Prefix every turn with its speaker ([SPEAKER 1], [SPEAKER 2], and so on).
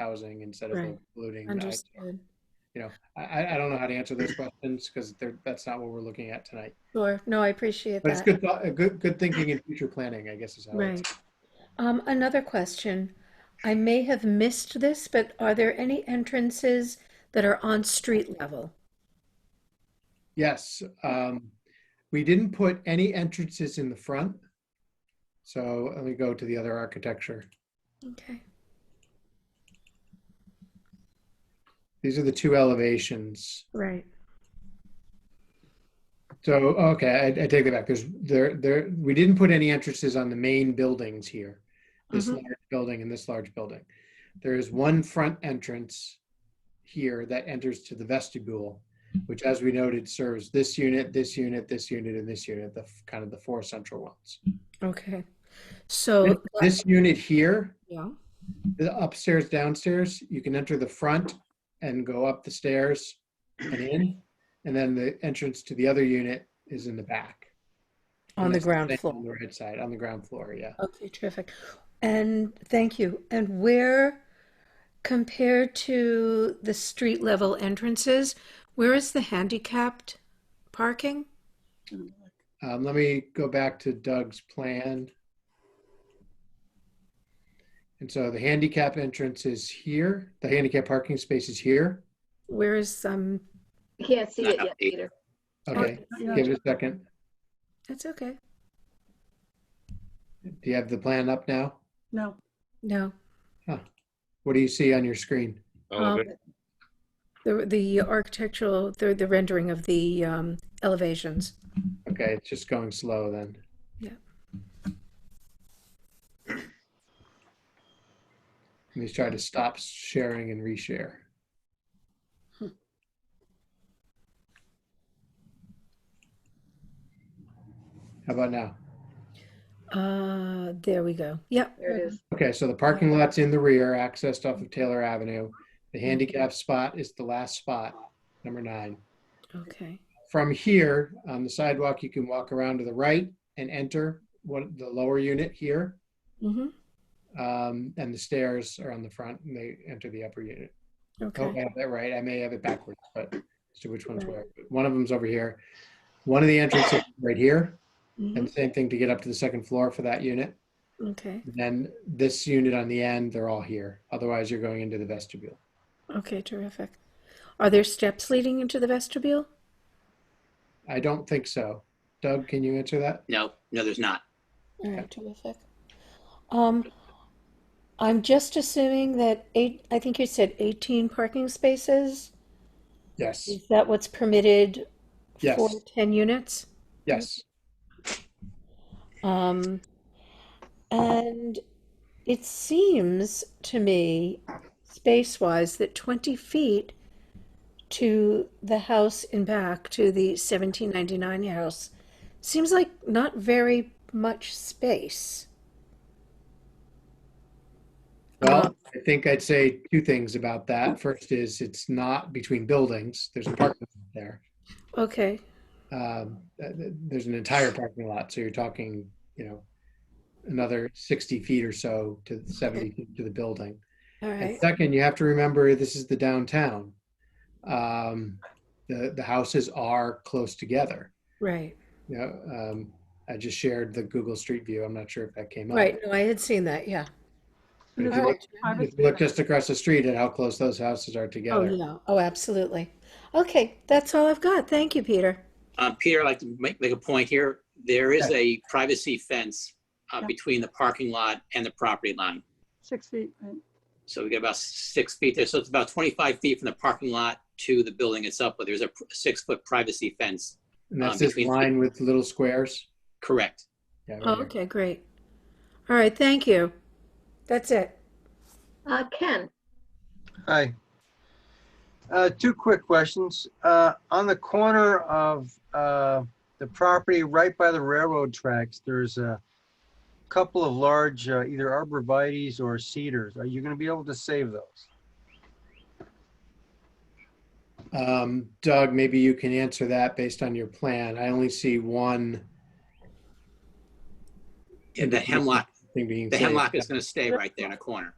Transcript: [SPEAKER 1] housing instead of
[SPEAKER 2] Right.
[SPEAKER 1] including. the ISO.
[SPEAKER 2] Understood.
[SPEAKER 1] You know, I- I, I don't know how to answer those questions because they're, that's not what we're looking at tonight.
[SPEAKER 2] Sure. No, I appreciate
[SPEAKER 1] But it's
[SPEAKER 2] that.
[SPEAKER 1] good, thought- a good, good thinking and future planning, I guess is how it's.
[SPEAKER 2] Right. Um, another question. I may have missed this, but are there any entrances that are on street level?
[SPEAKER 1] Yes, um, we didn't put any entrances in the front. So let me go to the other architecture.
[SPEAKER 2] Okay.
[SPEAKER 1] These are the two elevations.
[SPEAKER 2] Right.
[SPEAKER 1] So, okay, I, I take it back. There's there there we didn't put any entrances on the main buildings here. This
[SPEAKER 2] Mhm.
[SPEAKER 1] large building and this large building. There is one front entrance here that enters to the vestibule, which as we noted serves this unit, this unit, this unit, and this unit, the f- kind of the four central ones.
[SPEAKER 2] Okay. So,
[SPEAKER 1] This unit here,
[SPEAKER 2] yeah.
[SPEAKER 1] the upstairs, downstairs, you can enter the front and go up the stairs and in. And then the entrance to the other unit is in the back.
[SPEAKER 2] On
[SPEAKER 1] And
[SPEAKER 2] the
[SPEAKER 1] that's
[SPEAKER 2] ground
[SPEAKER 1] same
[SPEAKER 2] floor.
[SPEAKER 1] On the right side, on the ground floor, yeah.
[SPEAKER 2] Okay, terrific. And thank you. And where, compared to the street level entrances, where is the handicapped parking?
[SPEAKER 1] Um, let me go back to Doug's plan. And so the handicap entrance is here. The handicap parking space is here.
[SPEAKER 2] Where is, um,
[SPEAKER 3] I Can't see it yet, Peter.
[SPEAKER 1] Okay, give it a second.
[SPEAKER 2] that's okay.
[SPEAKER 1] Do you have the plan up now?
[SPEAKER 4] No,
[SPEAKER 2] No.
[SPEAKER 1] What do you see on your screen?
[SPEAKER 4] Oh.
[SPEAKER 2] Um, The, the architectural, the, the rendering of the, um, elevations.
[SPEAKER 1] Okay, it's just going slow then.
[SPEAKER 2] Yeah.
[SPEAKER 1] Let me try to stop sharing and reshare. How about now?
[SPEAKER 2] Uh, there we go. Yep.
[SPEAKER 3] There it is.
[SPEAKER 1] Okay, so the parking lot's in the rear, accessed off of Taylor Avenue. The handicap spot is the last spot, number nine.
[SPEAKER 2] Okay.
[SPEAKER 1] From here, on the sidewalk, you can walk around to the right and enter one, the lower unit here.
[SPEAKER 2] Mm-hmm.
[SPEAKER 1] Um, and the stairs are on the front and they enter the upper unit. I hope I
[SPEAKER 2] Okay.
[SPEAKER 1] have that right. I may have it backwards, but as to which one's where. But One of them's over here. One of the entrances is right here,
[SPEAKER 2] Mhm.
[SPEAKER 1] and same thing to get up to the second floor for that unit.
[SPEAKER 2] Okay.
[SPEAKER 1] And then this unit on the end, they're all here. Otherwise, you're going into the vestibule.
[SPEAKER 2] Okay, terrific. Are there steps leading into the vestibule?
[SPEAKER 1] I don't think so. Doug, can you answer that?
[SPEAKER 5] No, no, there's not.
[SPEAKER 2] All right, terrific. Um, I'm just assuming that eight, I think you said 18 parking spaces.
[SPEAKER 1] Yes.
[SPEAKER 2] Is that what's permitted
[SPEAKER 1] Yes.
[SPEAKER 2] for 10 units?
[SPEAKER 1] Yes.
[SPEAKER 2] Um, and it seems to me, space-wise, that 20 feet to the house in back, to the 1799 house, seems like not very much space. Uh-huh.
[SPEAKER 1] Well, I think I'd say two things about that. First is it's not between buildings. There's a parking lot there.
[SPEAKER 2] Okay,
[SPEAKER 1] um, th- th- there's an entire parking lot, so you're talking, you know, another 60 feet or so to 70 feet to the building.
[SPEAKER 2] all
[SPEAKER 1] And
[SPEAKER 2] right,
[SPEAKER 1] second, you have to remember this is the downtown. Um, the the houses are close together.
[SPEAKER 2] right,
[SPEAKER 1] You know, um, I just shared the Google Street View. I'm not sure if that came up.
[SPEAKER 2] right. No, I had seen that, yeah.
[SPEAKER 1] But if
[SPEAKER 2] All
[SPEAKER 1] you look,
[SPEAKER 2] right.
[SPEAKER 1] if you look just across the street at how close those houses are
[SPEAKER 2] Oh,
[SPEAKER 1] together.
[SPEAKER 2] yeah, oh, absolutely. Okay, that's all I've got. Thank you, Peter.
[SPEAKER 5] Um, Peter, I'd like to make, make a point here. There is a privacy fence uh,
[SPEAKER 4] Yeah.
[SPEAKER 5] between the parking lot and the property line.
[SPEAKER 4] six feet, right?
[SPEAKER 5] So we get about six feet there. So it's about 25 feet from the parking lot to the building itself, but there's a pr- six-foot privacy fence.
[SPEAKER 1] And
[SPEAKER 5] Um,
[SPEAKER 1] that's this
[SPEAKER 5] between-
[SPEAKER 1] line with little squares.
[SPEAKER 5] Correct.
[SPEAKER 1] Yeah, right
[SPEAKER 2] Oh,
[SPEAKER 1] here.
[SPEAKER 2] okay, great. All right, thank you. That's it.
[SPEAKER 3] Uh, Ken,
[SPEAKER 6] Hi. Uh, Two quick questions. Uh, On the corner of uh, the property right by the railroad tracks, there's a couple of large uh, either arborvitae's or cedars. Are you going to be able to save those?
[SPEAKER 1] Um, Doug, maybe you can answer that based on your plan. I only see one
[SPEAKER 5] Yeah, The hemlock,
[SPEAKER 1] thing being
[SPEAKER 5] the
[SPEAKER 1] saved.
[SPEAKER 5] hemlock is going to stay right there in the corner.